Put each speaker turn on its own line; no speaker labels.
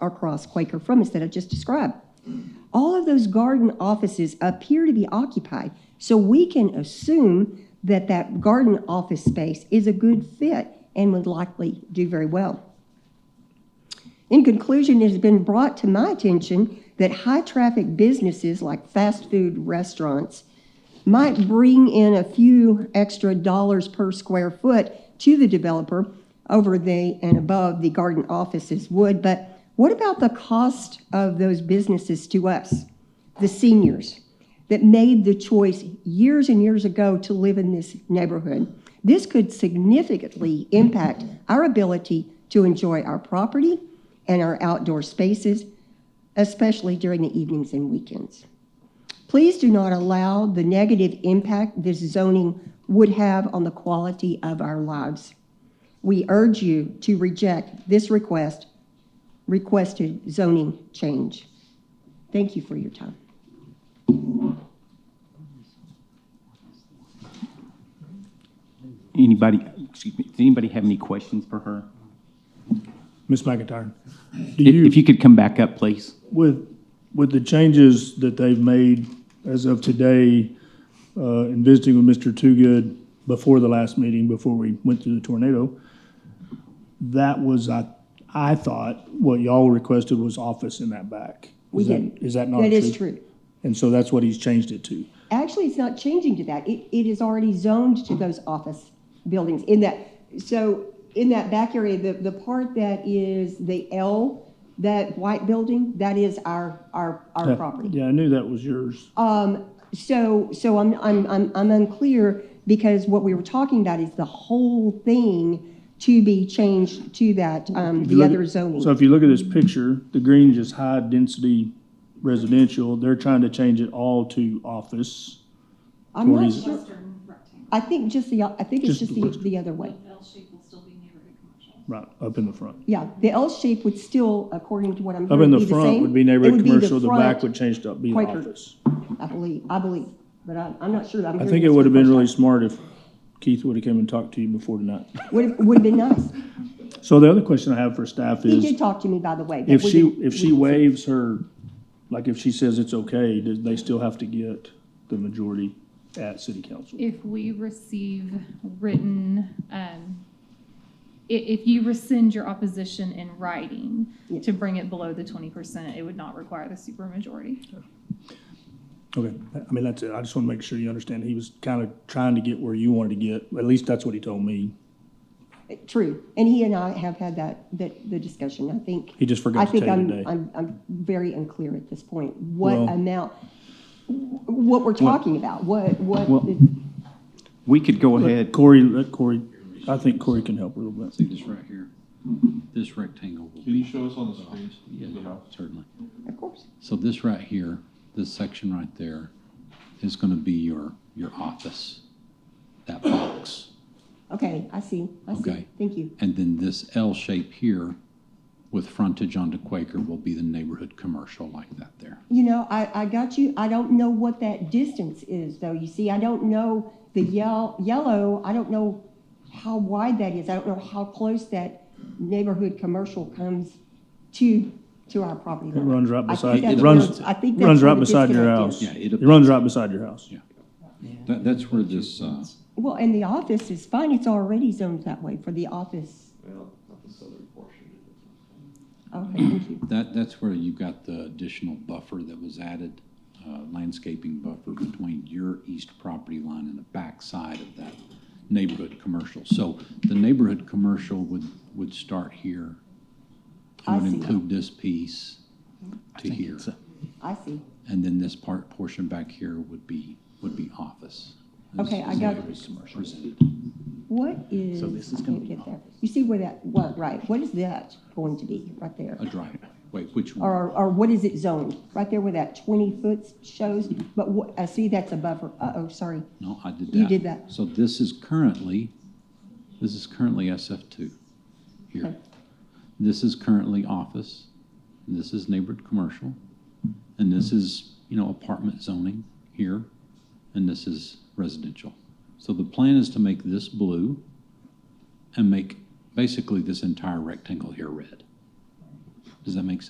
across Quaker from us that I just described. All of those garden offices appear to be occupied, so we can assume that that garden office space is a good fit and would likely do very well. In conclusion, it has been brought to my attention that high-traffic businesses like fast food restaurants might bring in a few extra dollars per square foot to the developer over the and above the garden offices would, but what about the cost of those businesses to us, the seniors that made the choice years and years ago to live in this neighborhood? This could significantly impact our ability to enjoy our property and our outdoor spaces, especially during the evenings and weekends. Please do not allow the negative impact this zoning would have on the quality of our lives. We urge you to reject this request, requested zoning change. Thank you for your time.
Anybody, excuse me, does anybody have any questions for her?
Ms. McIntyre, do
If if
you,
you could come back up, please.
with, with the changes that they've made as of today, uh, in visiting with Mr. Toogood before the last meeting, before we went through the tornado, that was, I, I thought what y'all requested was office in that back.
We
Is that-
did.
Is that not true?
That is true.
And so that's what he's changed it to.
Actually, it's not changing to that. It, it is already zoned to those office buildings in that, so in that back area, the, the part that is the L, that white building, that is our, our, our
Yeah,
property.
Yeah, I knew that was yours.
Um, so, so I'm, I'm, I'm, I'm unclear because what we were talking about is the whole thing to be changed to that, um,
you
the
look
other
at-
zoning.
So if you look at this picture, the green is high-density residential. They're trying to change it all to office.
I'm not
Tories.
sure, I think just the, I think it's
Just
just
the
the,
first-
the other way.
Right, up in the front.
Yeah, the L shape would still, according to what I'm
Up
hearing,
in the
be the
front
same.
would be
It
neighborhood
would
commercial, the back
front,
would change to be the
Quaker.
office.
I believe, I believe, but I'm, I'm not sure. I'm
I
hearing
think it
this for
would have
the
been
first
really smart if Keith would have come and talked to you before tonight.
time. Would, would have been nice.
So the other question I have for staff
He did
is,
talk to me, by the way. but
if
we
she,
didn't-
if
we
she
didn't-
waives her, like if she says it's okay, do they still have to get the majority at city council?
If we receive written, um, i- if you rescind your opposition in writing
Yeah.
to bring it below the twenty percent, it would not require the supermajority.
Okay, I mean, that's it. I just want to make sure you understand. He was kind of trying to get where you wanted to get. At least that's what he told me.
True, and he and I have had that, that, the discussion, I think.
He
I
just forgot to
think
tell you
I'm,
today.
I'm, I'm very unclear at this point, what
Well-
amount, what we're talking about, what, what,
Well-
the-
We could go
Let
ahead.
Corey, let Corey, I think Corey can help a little bit.
See this right here? This rectangle. will
Can
be
you show us on the screen?
Yeah,
The house?
certainly.
of course.
So this right here, this section right there is gonna be your, your office, that box.
Okay, I see, I see,
Okay.
thank you.
And then this L shape here with frontage onto Quaker will be the neighborhood commercial like that there.
You know, I, I got you, I don't know what that distance is, though, you see, I don't know the yell, yellow, I don't know how wide that is, I don't know how close that neighborhood commercial comes to, to our property
It
line.
runs right
I think
beside,
that's
it runs,
where- I think that's
runs
where
right
the
beside your
disconnect
house.
is.
Yeah,
It
it'll-
runs right beside your house.
That, that's where this, uh,
Well, and the office is fine, it's already zoned that way for the office.
Well, not the southern portion.
Okay, thank you.
that, that's where you've got the additional buffer that was added, uh, landscaping buffer between your east property line and the back side of that neighborhood commercial. So the neighborhood commercial would, would start here. It
I
would
see.
include this piece to here.
I see.
And then this part, portion back here would be, would be office. This
Okay, I
is the
got
way
it.
was presented.
What is?
this is
I
gonna
can't
be
get there. You see where that, what, right, what is that going to be, right there?
A driveway, wait, which one?
Or, or what is it zoned? Right there where that twenty foot shows, but what, I see that's a buffer, uh-oh, sorry.
No, I did that.
You did that.
So this is currently, this is currently SF two here.
Okay.
This is currently office, and this is neighborhood commercial, and this is, you know, apartment zoning here, and this is residential. So the plan is to make this blue and make basically this entire rectangle here red. Does that make sense?